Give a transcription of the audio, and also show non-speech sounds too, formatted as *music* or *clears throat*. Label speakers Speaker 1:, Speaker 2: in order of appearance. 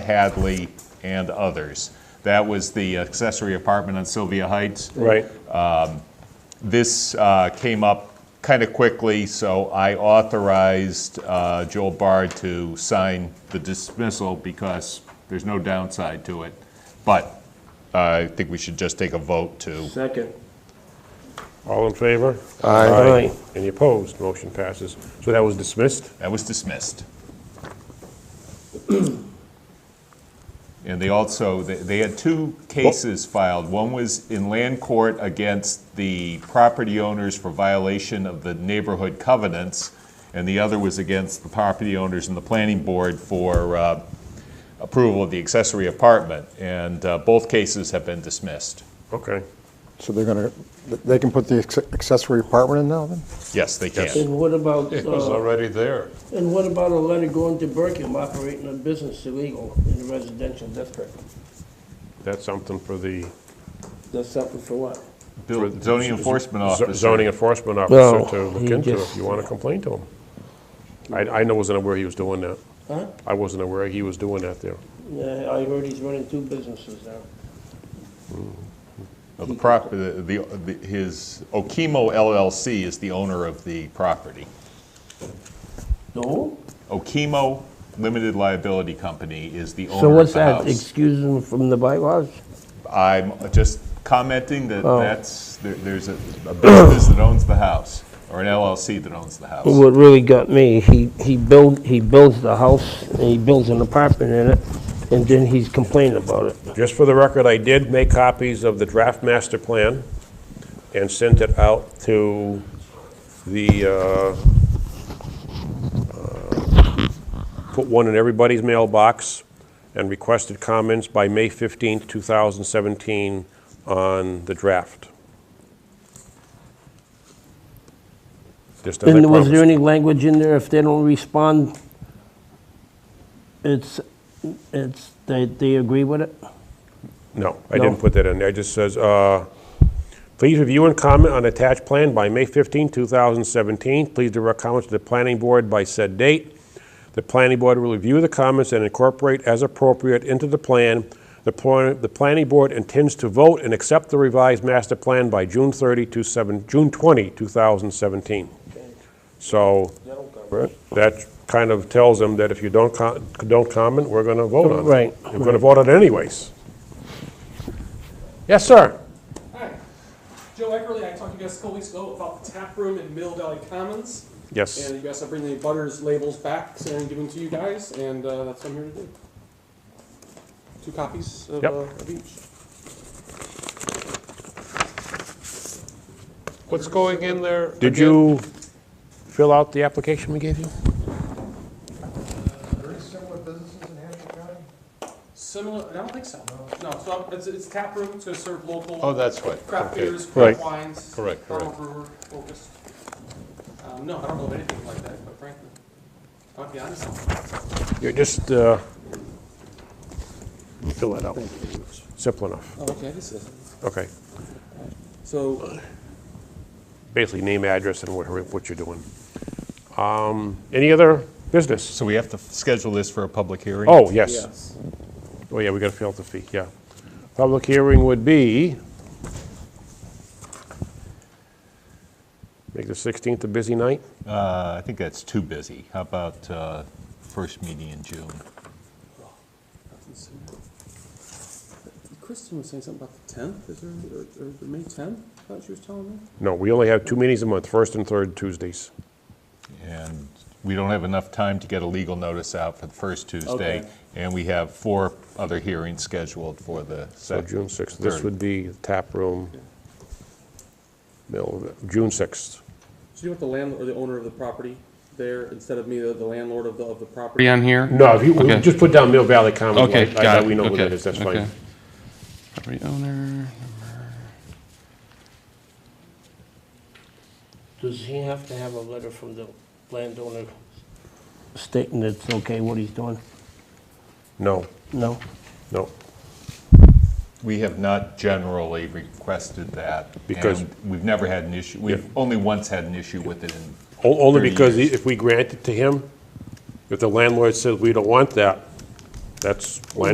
Speaker 1: Hadley, and others. That was the accessory apartment on Sylvia Heights.
Speaker 2: Right,
Speaker 1: This uh, came up kind of quickly, so I authorized uh, Joel Bard to sign the dismissal because there's no downside to it. But uh, I think we should just take a vote to,
Speaker 3: Second.
Speaker 2: all in favor?
Speaker 3: Aye. Aye.
Speaker 2: Any opposed? Motion passes. So that was dismissed?
Speaker 1: that was dismissed. *clears throat* And they also, they- they had two cases filed. One was in land court against the property owners for violation of the neighborhood covenants, and the other was against the property owners and the planning board for uh, approval of the accessory apartment. And uh, both cases have been dismissed.
Speaker 2: Okay.
Speaker 4: So they're gonna, they can put the acce- accessory apartment in now then?
Speaker 1: Yes, they can.
Speaker 3: And what about,
Speaker 5: It was
Speaker 3: uh,
Speaker 5: already there.
Speaker 3: and what about a letter going to Burkham operating a business illegal in a residential district?
Speaker 2: That's something for the
Speaker 3: That's something for what?
Speaker 1: Bill- Zoning enforcement
Speaker 2: z-
Speaker 1: officer.
Speaker 2: zoning enforcement
Speaker 3: No,
Speaker 2: officer to
Speaker 3: he
Speaker 2: look into
Speaker 3: just-
Speaker 2: if you want to complain to him. I, I know- wasn't aware he was doing that.
Speaker 3: Huh?
Speaker 2: I wasn't aware he was doing that there.
Speaker 3: Yeah, I heard he's running two businesses now.
Speaker 1: Well, The prop, the, the, the- his, Okemo LLC is the owner of the property.
Speaker 3: No?
Speaker 1: Okemo Limited Liability Company is the
Speaker 6: So
Speaker 1: owner of
Speaker 6: what's
Speaker 1: the
Speaker 6: that,
Speaker 1: house.
Speaker 6: excuse them from the bylaws?
Speaker 1: I'm just commenting that
Speaker 6: Oh.
Speaker 1: that's, there- there's a a business that owns the house, or an LLC that owns the house.
Speaker 6: What really got me, he, he build, he builds the house, and he builds an apartment in it, and then he's complaining about it.
Speaker 2: Just for the record, I did make copies of the draft master plan and sent it out to the, uh, uh, put one in everybody's mailbox and requested comments by May 15th, 2017 on the draft. Just as I
Speaker 6: And was there
Speaker 2: promised.
Speaker 6: any language in there, if they don't respond, it's, it's, they, they agree with it?
Speaker 2: No, I
Speaker 6: No?
Speaker 2: didn't put that in there. It just says, uh, please review and comment on attached plan by May 15, 2017. Please direct comments to the planning board by said date. The planning board will review the comments and incorporate as appropriate into the plan. The pl- the planning board intends to vote and accept the revised master plan by June 30, to seven- June 20, 2017. So that kind of tells them that if you don't co- don't comment, we're going to vote on it.
Speaker 6: Right,
Speaker 2: We're going to vote on it anyways. Yes, sir.
Speaker 7: Hi, Joe Eckerly. I talked to you guys a couple weeks ago about the tap room in Mill Valley Commons.
Speaker 2: Yes.
Speaker 7: And you guys are bringing the butters labels back and giving them to you guys, and uh, that's what I'm here to do. Two copies of,
Speaker 2: Yep.
Speaker 7: uh, of each.
Speaker 5: What's going in there?
Speaker 2: Did
Speaker 5: again?
Speaker 2: you fill out the application we gave you?
Speaker 7: Similar, I don't think so. No, so it's, it's tap room to serve local
Speaker 5: Oh, that's what.
Speaker 7: craft
Speaker 5: okay.
Speaker 7: beers, craft
Speaker 2: Right.
Speaker 7: wines,
Speaker 5: Correct,
Speaker 7: farmer
Speaker 5: correct.
Speaker 7: brewer focused. Um, no, I don't know of anything like that, quite frankly. I'll be honest.
Speaker 2: You're just, uh, fill that out. Simple enough.
Speaker 7: Oh, okay, this is.
Speaker 2: Okay.
Speaker 7: So,
Speaker 2: Basically, name, address, and what what you're doing. Um, Any other business?
Speaker 1: So we have to schedule this for a public hearing?
Speaker 2: Oh, yes.
Speaker 7: yes.
Speaker 2: Oh, yeah, we got to fill out the fee, yeah. Public hearing would be, make the 16th a busy night?
Speaker 1: Uh, I think that's too busy. How about uh, first meeting in June?
Speaker 7: Kristen was saying something about the tenth, is there, or, or the May tenth, I thought she was telling me?
Speaker 2: No, we only have two meetings a month, first and third Tuesdays.
Speaker 1: And we don't have enough time to get a legal notice out for the first Tuesday.
Speaker 7: Okay.
Speaker 1: And we have four other hearings scheduled for the
Speaker 2: So
Speaker 1: second.
Speaker 2: June 6th, this
Speaker 1: third.
Speaker 2: would be the tap room, middle, of it. June 6th.
Speaker 7: So you want the landlord, or the owner of the property there, instead of me, the the landlord of the, of the property? on here?
Speaker 2: No, if you,
Speaker 7: Okay.
Speaker 2: just put down Mill Valley Commons.
Speaker 7: Okay,
Speaker 2: like,
Speaker 7: got it.
Speaker 2: I- I- We know who
Speaker 7: Okay,
Speaker 2: that is, that's fine.
Speaker 7: okay. Property owner.
Speaker 6: Does he have to have a letter from the landowner stating it's okay what he's doing?
Speaker 2: No,
Speaker 6: No?
Speaker 2: no,
Speaker 1: We have not generally requested that.
Speaker 2: Because-
Speaker 1: and We've never had an issue, we've only once had an issue with it in.
Speaker 2: O- only
Speaker 1: 30
Speaker 2: because
Speaker 1: years.
Speaker 2: if we grant it to him, if the landlord says we don't want that, That's my